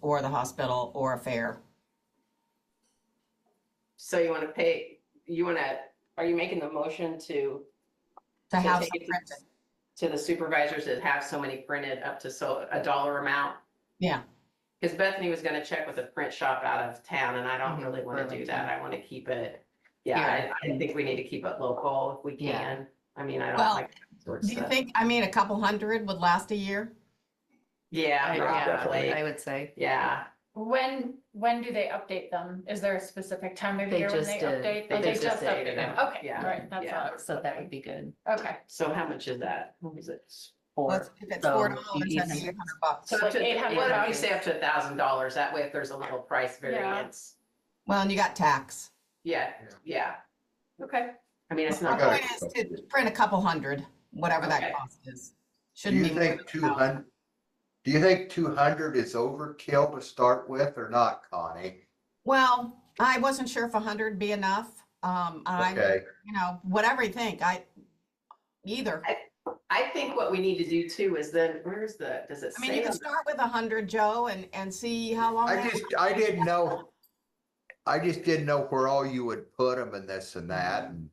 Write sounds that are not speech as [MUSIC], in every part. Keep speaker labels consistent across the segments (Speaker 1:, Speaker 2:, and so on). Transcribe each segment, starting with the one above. Speaker 1: or the hospital or a fair.
Speaker 2: So you want to pay, you want to, are you making the motion to,
Speaker 1: To
Speaker 2: So
Speaker 1: have
Speaker 2: take
Speaker 1: some
Speaker 2: it-
Speaker 1: printed.
Speaker 2: to the supervisors that have so many printed up to so, a dollar amount?
Speaker 1: Yeah.
Speaker 2: Because Bethany was gonna check with a print shop out of town and I don't really want to do that. I want to keep it. Yeah, I, I think we need to keep it local if we
Speaker 3: Yeah.
Speaker 2: can. I mean, I don't
Speaker 1: Well,
Speaker 2: like. that sort of
Speaker 1: Do you
Speaker 2: stuff.
Speaker 1: think, I mean, a couple hundred would last a year?
Speaker 2: Yeah,
Speaker 3: I-
Speaker 2: probably.
Speaker 3: I would say.
Speaker 2: Yeah,
Speaker 4: When, when do they update them? Is there a specific time of
Speaker 3: They
Speaker 4: year when
Speaker 3: just
Speaker 4: they
Speaker 3: did.
Speaker 4: update?
Speaker 2: They
Speaker 4: Oh, They
Speaker 2: just
Speaker 4: just
Speaker 2: updated
Speaker 4: updated
Speaker 2: them.
Speaker 4: them. Okay,
Speaker 2: Yeah.
Speaker 4: all right, that's
Speaker 2: Yeah.
Speaker 4: all. I was
Speaker 3: So that would
Speaker 4: thinking.
Speaker 3: be good.
Speaker 4: Okay,
Speaker 2: so how much is that? What is it?
Speaker 3: Or
Speaker 1: Let's- If it's
Speaker 3: so
Speaker 1: four
Speaker 3: you
Speaker 1: dollars,
Speaker 3: need
Speaker 1: that's
Speaker 3: some-
Speaker 1: eight hundred bucks.
Speaker 2: So
Speaker 4: So
Speaker 2: up to,
Speaker 4: like
Speaker 2: what if you
Speaker 4: $800.
Speaker 2: say up to a thousand dollars? That way if there's a little price variance.
Speaker 1: Well, and you got tax.
Speaker 2: Yeah, yeah.
Speaker 4: okay.
Speaker 2: I mean, it's
Speaker 1: My
Speaker 2: not.
Speaker 5: got
Speaker 1: point
Speaker 5: it.
Speaker 1: is to print a couple hundred, whatever
Speaker 2: Okay.
Speaker 1: that cost is.
Speaker 5: Do
Speaker 1: Shouldn't
Speaker 5: you
Speaker 1: be. more
Speaker 5: think
Speaker 1: than
Speaker 5: two
Speaker 1: a thousand.
Speaker 5: hundred? do you think two hundred is overkill to start with or not, Connie?
Speaker 1: Well, I wasn't sure if a hundred be enough. Um, I'm,
Speaker 5: Okay,
Speaker 1: you know, whatever you think, I, either.
Speaker 2: I think what we need to do too is then, where's the, does it
Speaker 1: I mean, you
Speaker 2: say?
Speaker 1: can
Speaker 2: on
Speaker 1: start with a hundred, Joe, and, and see how long.
Speaker 5: I
Speaker 1: that-
Speaker 5: just, I didn't know, I just didn't know where all you would put them and this and that, and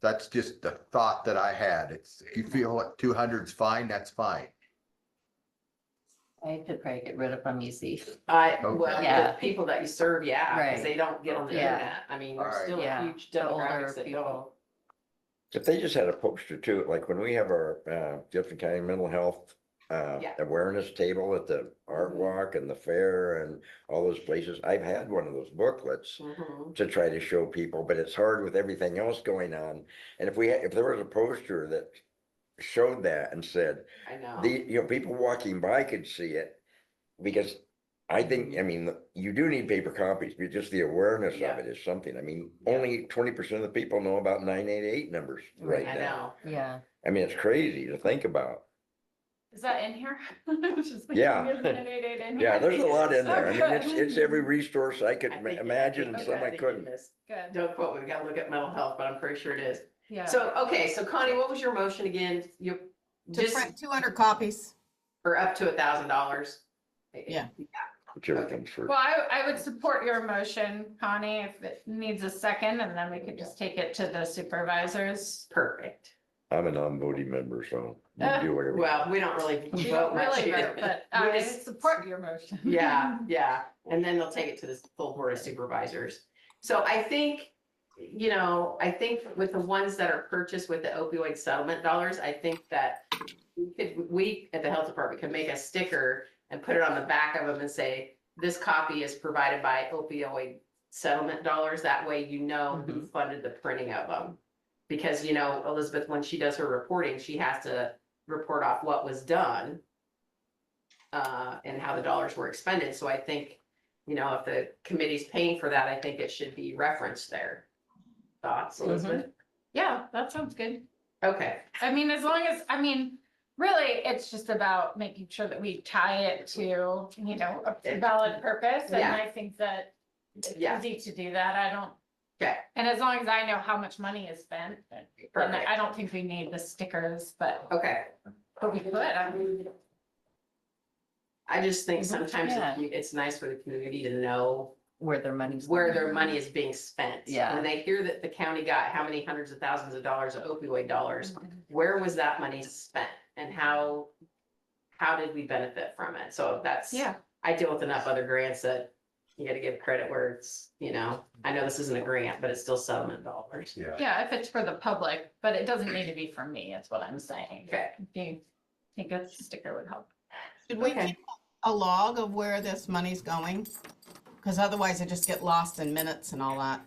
Speaker 5: that's just the thought that I had, it's, if you feel like two hundred's fine, that's fine.
Speaker 3: I could probably get rid of them easy.
Speaker 2: I,
Speaker 5: Okay.
Speaker 2: well, the
Speaker 3: Yeah.
Speaker 2: people that you serve, yeah, because
Speaker 3: Right.
Speaker 2: they don't get on the
Speaker 3: Yeah.
Speaker 2: internet. I mean, there's
Speaker 5: Alright.
Speaker 2: still a
Speaker 3: Yeah,
Speaker 2: huge
Speaker 3: the older
Speaker 2: demographic that don't.
Speaker 3: people.
Speaker 6: If they just had a poster too, like when we have our uh, Jefferson County Mental Health uh,
Speaker 2: Yeah.
Speaker 6: Awareness Table at the Art
Speaker 2: Mhm.
Speaker 6: Walk and the fair and all those places, I've had one of those booklets
Speaker 2: Mhm.
Speaker 6: to try to show people, but it's hard with everything else going on. And if we, had- if there was a poster that showed that and said,
Speaker 2: I
Speaker 6: the,
Speaker 2: know.
Speaker 6: you know, people walking by could see it. Because I think, I mean, you do need paper copies, but just the awareness of
Speaker 2: Yeah.
Speaker 6: it is something. I mean,
Speaker 2: Yeah.
Speaker 6: only twenty percent of the people know about nine eight eight numbers right
Speaker 2: I
Speaker 6: now.
Speaker 2: know.
Speaker 3: Yeah.
Speaker 6: I mean, it's crazy to think about.
Speaker 4: Is that in here? [LAUGHS] I was just thinking,
Speaker 6: Yeah.
Speaker 4: [LAUGHS] isn't it eight, eight in
Speaker 6: Yeah,
Speaker 4: here?
Speaker 6: there's a lot in there. I mean, it's,
Speaker 4: Okay.
Speaker 6: it's every resource I could
Speaker 2: I
Speaker 6: ma-
Speaker 2: think-
Speaker 6: imagine
Speaker 2: okay,
Speaker 6: and some
Speaker 2: I
Speaker 6: I
Speaker 2: think [LAUGHS]
Speaker 6: couldn't.
Speaker 2: it is.
Speaker 4: [LAUGHS] Good,
Speaker 2: Don't quote, me, we gotta look at mental health, but I'm pretty sure it is.
Speaker 4: yeah.
Speaker 2: So, okay, so Connie, what was your motion again? You,
Speaker 1: To
Speaker 2: just,
Speaker 1: print two hundred copies.
Speaker 2: or up to a thousand dollars?
Speaker 1: Yeah.
Speaker 6: Whichever comes first.
Speaker 4: Well, I, I would support your motion, Connie, if it needs a second, and then we could just take it to the supervisors.
Speaker 2: Perfect.
Speaker 6: I'm a non-voting member, so
Speaker 2: [LAUGHS]
Speaker 6: you
Speaker 4: Uh,
Speaker 6: do whatever.
Speaker 2: Well, we don't really
Speaker 4: We
Speaker 2: vote
Speaker 4: don't
Speaker 2: much
Speaker 4: really
Speaker 2: here.
Speaker 4: vote, but
Speaker 2: We
Speaker 4: I
Speaker 2: just-
Speaker 4: support your motion.
Speaker 2: Yeah, yeah, and then they'll take it to the full board of supervisors. So I think, you know, I think with the ones that are purchased with the opioid settlement dollars, I think that we could, we at the health department can make a sticker and put it on the back of them and say, this copy is provided by opioid settlement dollars. That way you know who funded the printing of them. Because, you know, Elizabeth, when she does her reporting, she has to report off what was done uh, and how the dollars were expended. So I think, you know, if the committee's paying for that, I think it should be referenced there. Thoughts, Elizabeth?
Speaker 4: [LAUGHS] Yeah, that sounds good.
Speaker 2: Okay,
Speaker 4: I mean, as long as, I mean, really, it's just about making sure that we tie it to, you know, a valid purpose, and
Speaker 2: Yeah.
Speaker 4: I think that it's
Speaker 2: Yeah.
Speaker 4: easy to do that, I don't.
Speaker 2: Okay.
Speaker 4: And as long as I know how much money is spent, then
Speaker 2: perfect.
Speaker 4: I don't think we need the stickers, but,
Speaker 2: Okay.
Speaker 4: but we could, I mean,
Speaker 2: I just think sometimes
Speaker 3: Mhm. Yeah.
Speaker 2: it- it's nice for the community to know
Speaker 3: Where their money's.
Speaker 2: where
Speaker 3: going.
Speaker 2: their money is being spent.
Speaker 3: Yeah.
Speaker 2: When they hear that the county got how many hundreds of thousands of dollars of opioid dollars,
Speaker 3: Mm-hmm.
Speaker 2: where was that money spent? And how, how did we benefit from it? So that's.
Speaker 4: yeah,
Speaker 2: I deal with enough other grants that you gotta give credit where it's, you know, I know this isn't a grant, but it's still settlement dollars.
Speaker 5: yeah.
Speaker 4: yeah, if it's for the public, but it doesn't need to be for me, is what I'm saying.
Speaker 2: Okay,
Speaker 4: If you think a sticker would help.
Speaker 1: Should we
Speaker 2: Okay.
Speaker 1: keep a log of where this money's going? Because otherwise I just get lost in minutes and all that.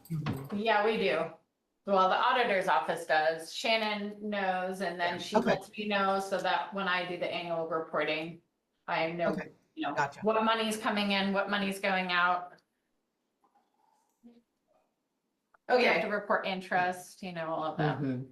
Speaker 4: Yeah, we do. Well, the auditor's office does. Shannon knows and then she
Speaker 1: Okay.
Speaker 4: lets me know so that when I do the annual reporting, I know,
Speaker 1: Okay.
Speaker 4: you know,
Speaker 1: Gotcha.
Speaker 4: what money's coming in, what money's going out. We have to
Speaker 2: okay,
Speaker 4: report interest, you know, all of that.
Speaker 3: Mhm.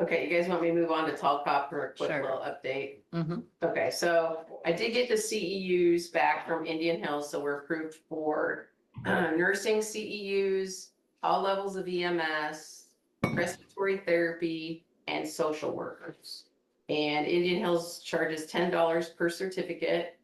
Speaker 2: okay, you guys want me to move on to Tall Cop for a quick
Speaker 3: Sure.
Speaker 2: little update?
Speaker 3: Mhm.
Speaker 2: Okay, so I did get the CEUs back from Indian Hills, so we're approved for uh, nursing CEUs, all levels of EMS, respiratory therapy, and social workers. And Indian Hills charges ten dollars per certificate.